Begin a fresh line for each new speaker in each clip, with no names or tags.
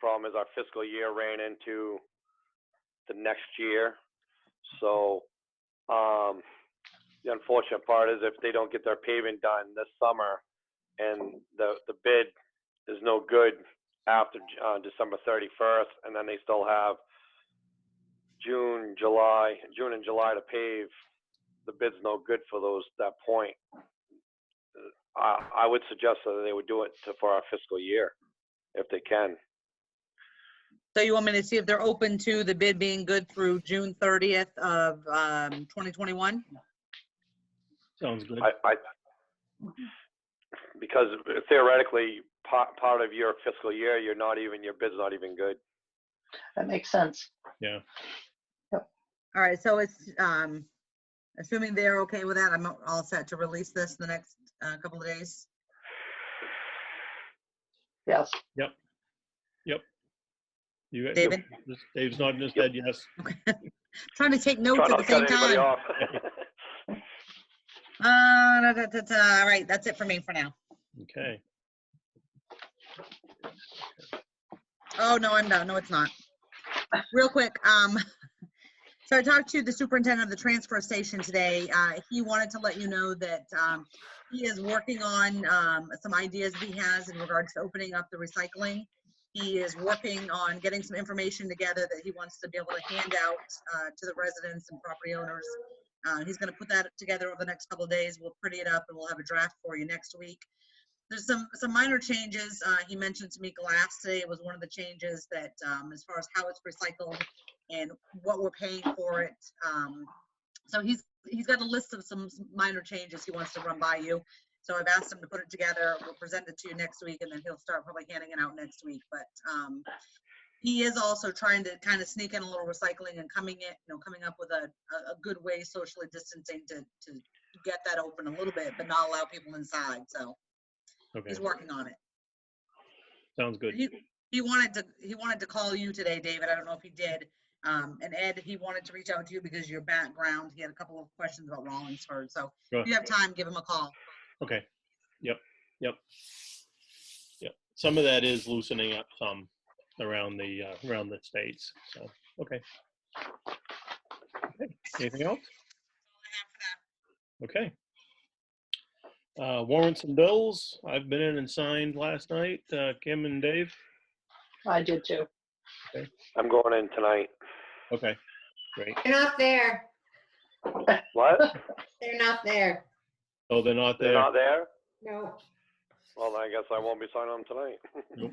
problem is our fiscal year ran into the next year. So, um, the unfortunate part is if they don't get their paving done this summer and the, the bid is no good after, uh, December thirty-first, and then they still have June, July, June and July to pave, the bid's no good for those, that point. I, I would suggest that they would do it to, for our fiscal year, if they can.
So you want me to see if they're open to the bid being good through June 30th of um, 2021?
Sounds good.
I, I, because theoretically, part, part of your fiscal year, you're not even, your bid's not even good.
That makes sense.
All right, so it's, um, assuming they're okay with that, I'm all set to release this in the next uh, couple of days.
Yes.
You- you-
David?
Dave's nodding his head, yes.
Trying to take notes
Try
at
not
the
to cut
same
anybody
time.
off.
Uh, da, da, da, da. All right, that's it for me for now.
Okay.
Oh, no, I'm done. No, it's not. Real quick, um, so I talked to the superintendent of the transfer station today. Uh, he wanted to let you know that, um, he is working on, um, some ideas that he has in regards to opening up the recycling. He is working on getting some information together that he wants to be able to hand out, uh, to the residents and property owners. Uh, he's gonna put that together over the next couple of days. We'll pretty it up and we'll have a draft for you next week there's some, some minor changes. Uh, he mentioned to me glass today was one of the changes that, um, as far as how it's recycled and what we're paying for it. Um, so he's, he's got a list of some s- minor changes he wants to run by you. So I've asked him to put it together. We'll present it to you next week and then he'll start probably handing it out next week. But, um, he is also trying to kind of sneak in a little recycling and coming it, you know, coming up with a, a, a good way socially distancing to, to get that open a little bit, but not allow people inside. So
Okay,
he's working on it.
sounds good.
He, he wanted to, he wanted to call you today, David. I don't know if he did. Um, and Ed, he wanted to reach out to you because your background, he had a couple of questions about Rollinsford. So
Sure.
if you have time, give him a call.
Okay. Yep, yep. Yep. Some of that is loosening up some around the, uh, around the states, so, okay. Okay, Anything else? Okay. Uh, warrants and bills. I've been in and signed last night. Uh, Kim and Dave.
I did too.
I'm going in tonight.
Okay, great.
They're not there.
What?
They're not there.
Oh, they're not
They're
there.
not there?
No.
Well, then I guess I won't be signing them tonight.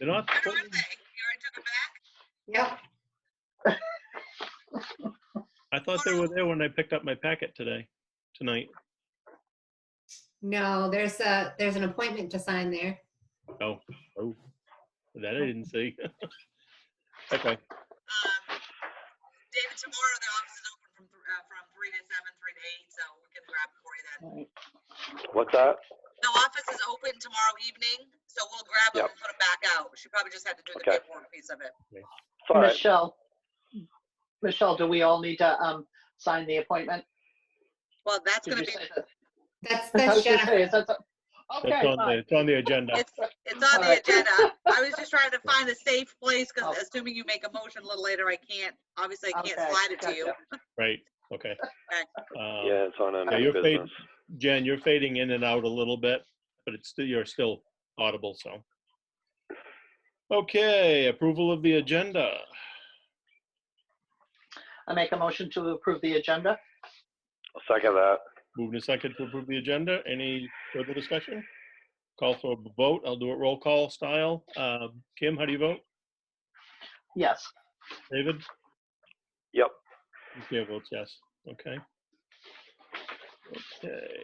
They're not.
Where are they? You already took it back?
Yep.
I thought they were there when I picked up my packet today, tonight.
No, there's a, there's an appointment to sign there.
Oh, oh, that I didn't see. Okay,
Um, David, tomorrow the office is open from, th- uh, from three to seven, three to eight, so we can grab it for you then.
What's that?
The office is open tomorrow evening, so we'll grab them
Yep.
and put them back out. She probably just had to do the
Okay.
paperwork piece of it.
It's all right.
Michelle, Michelle, do we all need to um, sign the appointment?
Well, that's
Did
gonna be,
you say that?
That's,
I
that's
was gonna
Jennifer.
say, is that so-
that's
Okay,
on the,
fine.
it's on the agenda.
it's, it's on the
Alright.
agenda. I was just trying to find a safe place, because
Oh.
assuming you make a motion a little later, I can't, obviously I can't
Okay,
slide it to you.
gotcha.
Right, okay. Uh,
Yeah, it's on a
Yeah, you're paid.
business.
Jen, you're fading in and out a little bit, but it's still, you're still audible, so. Okay, approval of the agenda.
I make a motion to approve the agenda.
I'll second that.
Moving to second to approve the agenda. Any further discussion? Call for a vote. I'll do it roll call style. Uh, Kim, how do you vote?
Yes,
David?
Yep.
The Chair votes yes. Okay. Okay.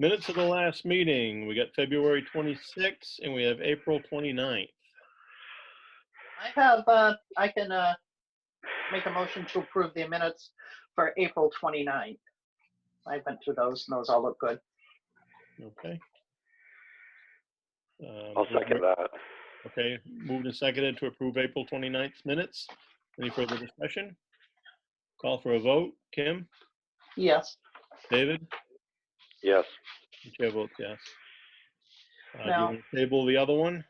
Minutes of the last meeting. We got February 26th and we have April 29th.
I have, uh, I can uh, make a motion to approve the minutes for April 29th. I went through those and those all look good.
Okay. Um,
I'll second that.
Okay, moved and seconded to approve April 29th minutes. Any further discussion? Call for a vote. Kim,
Yes,
David,
Yes.
the chair votes yes. Uh, do you
No.
wanna Table the other one?